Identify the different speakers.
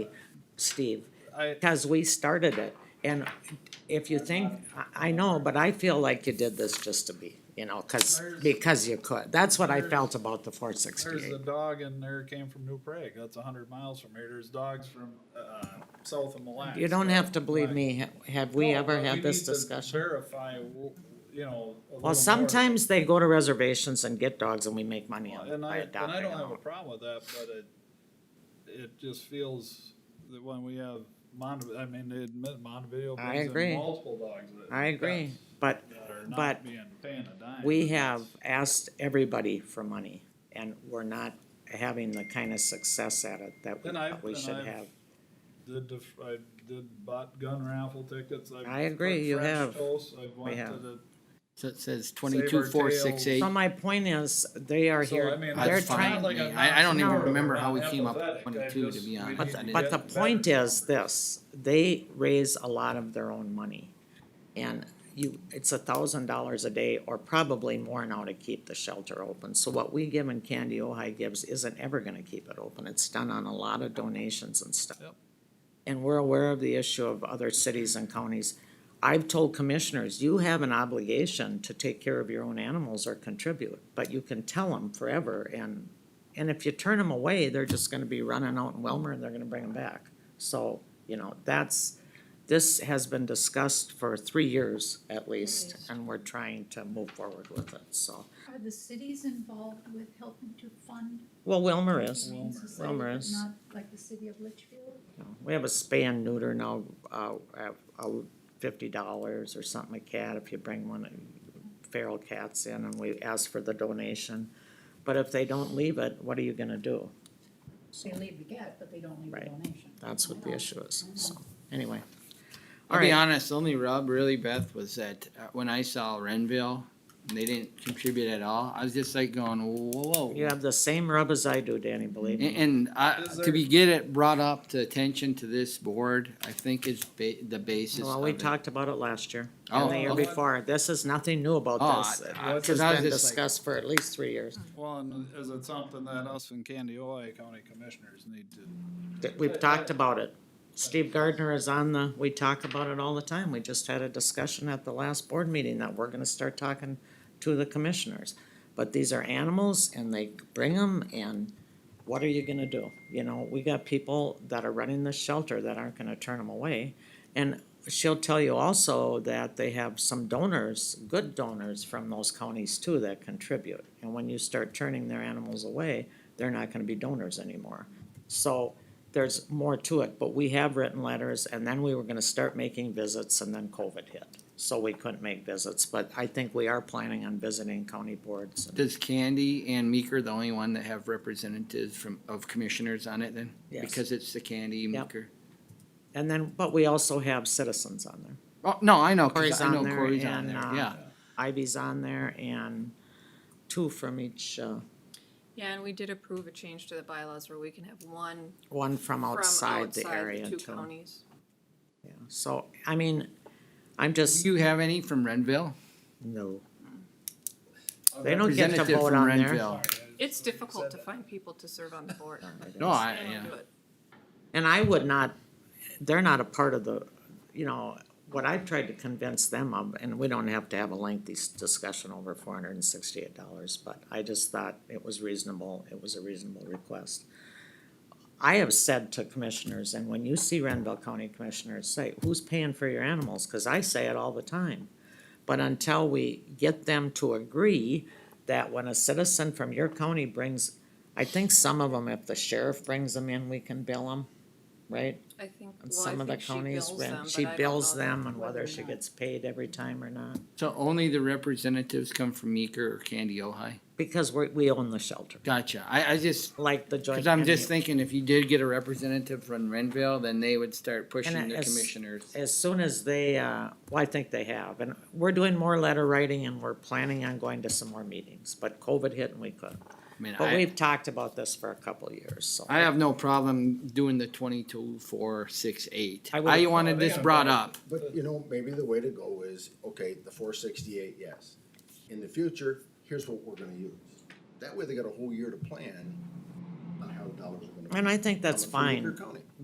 Speaker 1: Steve,
Speaker 2: I,
Speaker 1: because we started it. And if you think, I, I know, but I feel like you did this just to be, you know, cause,
Speaker 2: There's-
Speaker 1: because you could. That's what I
Speaker 2: there's-
Speaker 1: felt about the four
Speaker 2: there's a
Speaker 1: sixty-eight.
Speaker 2: dog in there came from New Prague. That's a hundred miles from here. There's dogs from, uh, south of Mille Lacs.
Speaker 1: You don't have to believe
Speaker 2: Like-
Speaker 1: me. Ha- Have we
Speaker 2: No,
Speaker 1: ever
Speaker 2: but we
Speaker 1: had this
Speaker 2: need to
Speaker 1: discussion?
Speaker 2: Verify, w- you know. a little more.
Speaker 1: Well, sometimes they go to reservations and get dogs and we make money on
Speaker 2: And
Speaker 1: by
Speaker 2: I, and I
Speaker 1: adopting
Speaker 2: don't have
Speaker 1: them.
Speaker 2: a problem with that, but it, it just feels that when we have Montev- I mean, they admit Montevideo
Speaker 1: I
Speaker 2: brings
Speaker 1: agree.
Speaker 2: in multiple dogs. that-
Speaker 1: I agree, but
Speaker 2: That are not
Speaker 1: but
Speaker 2: being paying a dime.
Speaker 1: we have asked everybody for money and we're not having the kind of success at it that we
Speaker 2: And I-
Speaker 1: thought we
Speaker 2: and
Speaker 1: should
Speaker 2: I've-
Speaker 1: have.
Speaker 2: Did, def- I did bought gun raffle tickets. I've
Speaker 1: I agree,
Speaker 2: cooked
Speaker 1: you
Speaker 2: French
Speaker 1: have.
Speaker 2: toast, I've went to
Speaker 1: have.
Speaker 2: the-
Speaker 3: So it says
Speaker 2: our
Speaker 3: twenty-two, four, six, eight.
Speaker 1: So my point is, they are
Speaker 2: So, I
Speaker 1: here,
Speaker 2: mean,
Speaker 1: they're
Speaker 3: That's
Speaker 2: it's not
Speaker 1: trying,
Speaker 3: fine.
Speaker 2: like
Speaker 3: to me.
Speaker 2: I'm
Speaker 3: I- I
Speaker 2: not
Speaker 3: don't
Speaker 1: even
Speaker 2: supportive,
Speaker 3: remember
Speaker 2: I'm
Speaker 3: how we
Speaker 2: not
Speaker 3: came up with
Speaker 2: apathetic. I
Speaker 3: 22, to
Speaker 2: just-
Speaker 3: be
Speaker 2: we need
Speaker 3: honest.
Speaker 1: but,
Speaker 2: to
Speaker 1: the-
Speaker 2: get
Speaker 1: but the
Speaker 2: better.
Speaker 1: point is this, they raise a lot of their own money. And you, it's a thousand dollars a day or probably more now to keep the shelter open. So what we give and Candy Ojai gives isn't ever gonna keep it open. It's done on a lot of donations and stuff.
Speaker 2: Yep.
Speaker 1: And we're aware of the issue of other cities and counties. I've told commissioners, you have an obligation to take care of your own animals or contribute, but you can tell them forever and, and if you turn them away, they're just gonna be running out in Wilmer and they're gonna bring them back. So, you know, that's, this has been discussed for three years at least, and we're trying to move forward with it, so.
Speaker 4: Are the cities involved with helping to fund
Speaker 1: Well, Wilmer is,
Speaker 4: Humane Society,
Speaker 1: Wilmer
Speaker 4: but
Speaker 1: is.
Speaker 4: not like the city of Litchfield?
Speaker 1: we have a spay and neuter now, uh, at, uh, fifty dollars or something a cat if you bring one of feral cats in and we ask for the donation. But if they don't leave it, what are you gonna do?
Speaker 4: They leave the cat, but they don't leave the
Speaker 1: Right.
Speaker 4: donation.
Speaker 1: That's what the issue is, so, anyway.
Speaker 3: I'll be
Speaker 1: Alright.
Speaker 3: honest, the only rub really, Beth, was that uh, when I saw Renville, and they didn't contribute at all, I was just like going, whoa.
Speaker 1: You have the same rub as I do, Danny, believe
Speaker 3: And,
Speaker 1: me.
Speaker 3: and I,
Speaker 2: Is
Speaker 3: to be, get it brought up to attention to this board, I think is ba- the basis
Speaker 1: Well,
Speaker 3: of
Speaker 1: we
Speaker 3: it.
Speaker 1: talked about it last year
Speaker 3: Oh,
Speaker 1: and the year
Speaker 3: okay.
Speaker 1: before. This is nothing new about
Speaker 3: Oh,
Speaker 1: this.
Speaker 3: I- I-
Speaker 1: This
Speaker 3: 'cause
Speaker 1: has
Speaker 3: I was
Speaker 1: been
Speaker 3: just like-
Speaker 1: discussed for at least three years.
Speaker 2: Well, and is it something that us and Candioi County Commissioners need to,
Speaker 1: That We've talked about it. Steve Gardner is on the, we talk about it all the time. We just had a discussion at the last board meeting that we're gonna start talking to the commissioners. But these are animals and they bring them and what are you gonna do? You know, we got people that are running the shelter that aren't gonna turn them away. And she'll tell you also that they have some donors, good donors from those counties too that contribute. And when you start turning their animals away, they're not gonna be donors anymore. So there's more to it, but we have written letters and then we were gonna start making visits and then COVID hit. So we couldn't make visits, but I think we are planning on visiting county boards. and-
Speaker 3: Does Candy and Meeker the only one that have representatives from, of commissioners on it then?
Speaker 1: Yes.
Speaker 3: Because it's the Candy,
Speaker 1: Yep.
Speaker 3: Meeker.
Speaker 1: And then, but we also have citizens on there.
Speaker 3: Oh, no, I know, 'cause
Speaker 1: Corey's
Speaker 3: I
Speaker 1: on
Speaker 3: know
Speaker 1: there
Speaker 3: Corey's on
Speaker 1: and,
Speaker 3: there,
Speaker 1: uh,
Speaker 3: yeah.
Speaker 1: Ivy's on there and two from each, uh,
Speaker 5: Yeah, and we did approve a change to the bylaws where we can have one
Speaker 1: one from
Speaker 5: from
Speaker 1: outside
Speaker 5: outside
Speaker 1: the area
Speaker 5: the two
Speaker 1: too.
Speaker 5: counties.
Speaker 1: Yeah. So, I mean, I'm
Speaker 3: Do
Speaker 1: just,
Speaker 3: you have any from Renville?
Speaker 1: no. They don't get to
Speaker 3: Representative
Speaker 1: vote
Speaker 3: from
Speaker 1: on there.
Speaker 3: Renville.
Speaker 5: It's difficult
Speaker 2: said
Speaker 5: to
Speaker 2: that.
Speaker 5: find people to serve on the board.
Speaker 3: No, I,
Speaker 5: They don't
Speaker 3: yeah.
Speaker 5: do it.
Speaker 1: And I would not, they're not a part of the, you know, what I've tried to convince them of, and we don't have to have a lengthy s- discussion over four hundred and sixty-eight dollars, but I just thought it was reasonable, it was a reasonable request. I have said to commissioners, and when you see Renville County Commissioners say, who's paying for your animals? Cause I say it all the time. But until we get them to agree that when a citizen from your county brings, I think some of them, if the sheriff brings them in, we can bill them, right?
Speaker 5: I think,
Speaker 1: And
Speaker 5: well, I
Speaker 1: some of the
Speaker 5: think she
Speaker 1: counties,
Speaker 5: bills
Speaker 1: when
Speaker 5: them,
Speaker 1: she
Speaker 5: but I don't
Speaker 1: bills
Speaker 5: know
Speaker 1: them and
Speaker 5: whether
Speaker 1: whether
Speaker 5: or
Speaker 1: she
Speaker 5: not.
Speaker 1: gets paid every time or not,
Speaker 3: So only the representatives come from Meeker or Candy Ojai?
Speaker 1: because we, we own the shelter,
Speaker 3: Gotcha. I, I just,
Speaker 1: like the joint.
Speaker 3: cause I'm just
Speaker 1: committee.
Speaker 3: thinking if you did get a representative from Renville, then they would start pushing
Speaker 1: And
Speaker 3: the
Speaker 1: as-
Speaker 3: commissioners.
Speaker 1: As soon as they, uh, well, I think they have, and we're doing more letter writing and we're planning on going to some more meetings, but COVID hit and we couldn't.
Speaker 3: I mean,
Speaker 1: But
Speaker 3: I,
Speaker 1: we've talked about this for a couple of years, so.
Speaker 3: I have no problem doing the twenty-two, four, six, eight.
Speaker 1: I would've-
Speaker 3: I wanted
Speaker 2: Oh, they
Speaker 3: this
Speaker 2: gotta
Speaker 3: brought
Speaker 2: vote.
Speaker 3: up.
Speaker 6: But you know, maybe the way to go is, okay, the four sixty-eight, yes. In the future, here's what we're gonna use. That way they got a whole year to plan on how the dollars are gonna.
Speaker 1: And I think that's
Speaker 6: come from
Speaker 1: fine.
Speaker 6: Meeker County.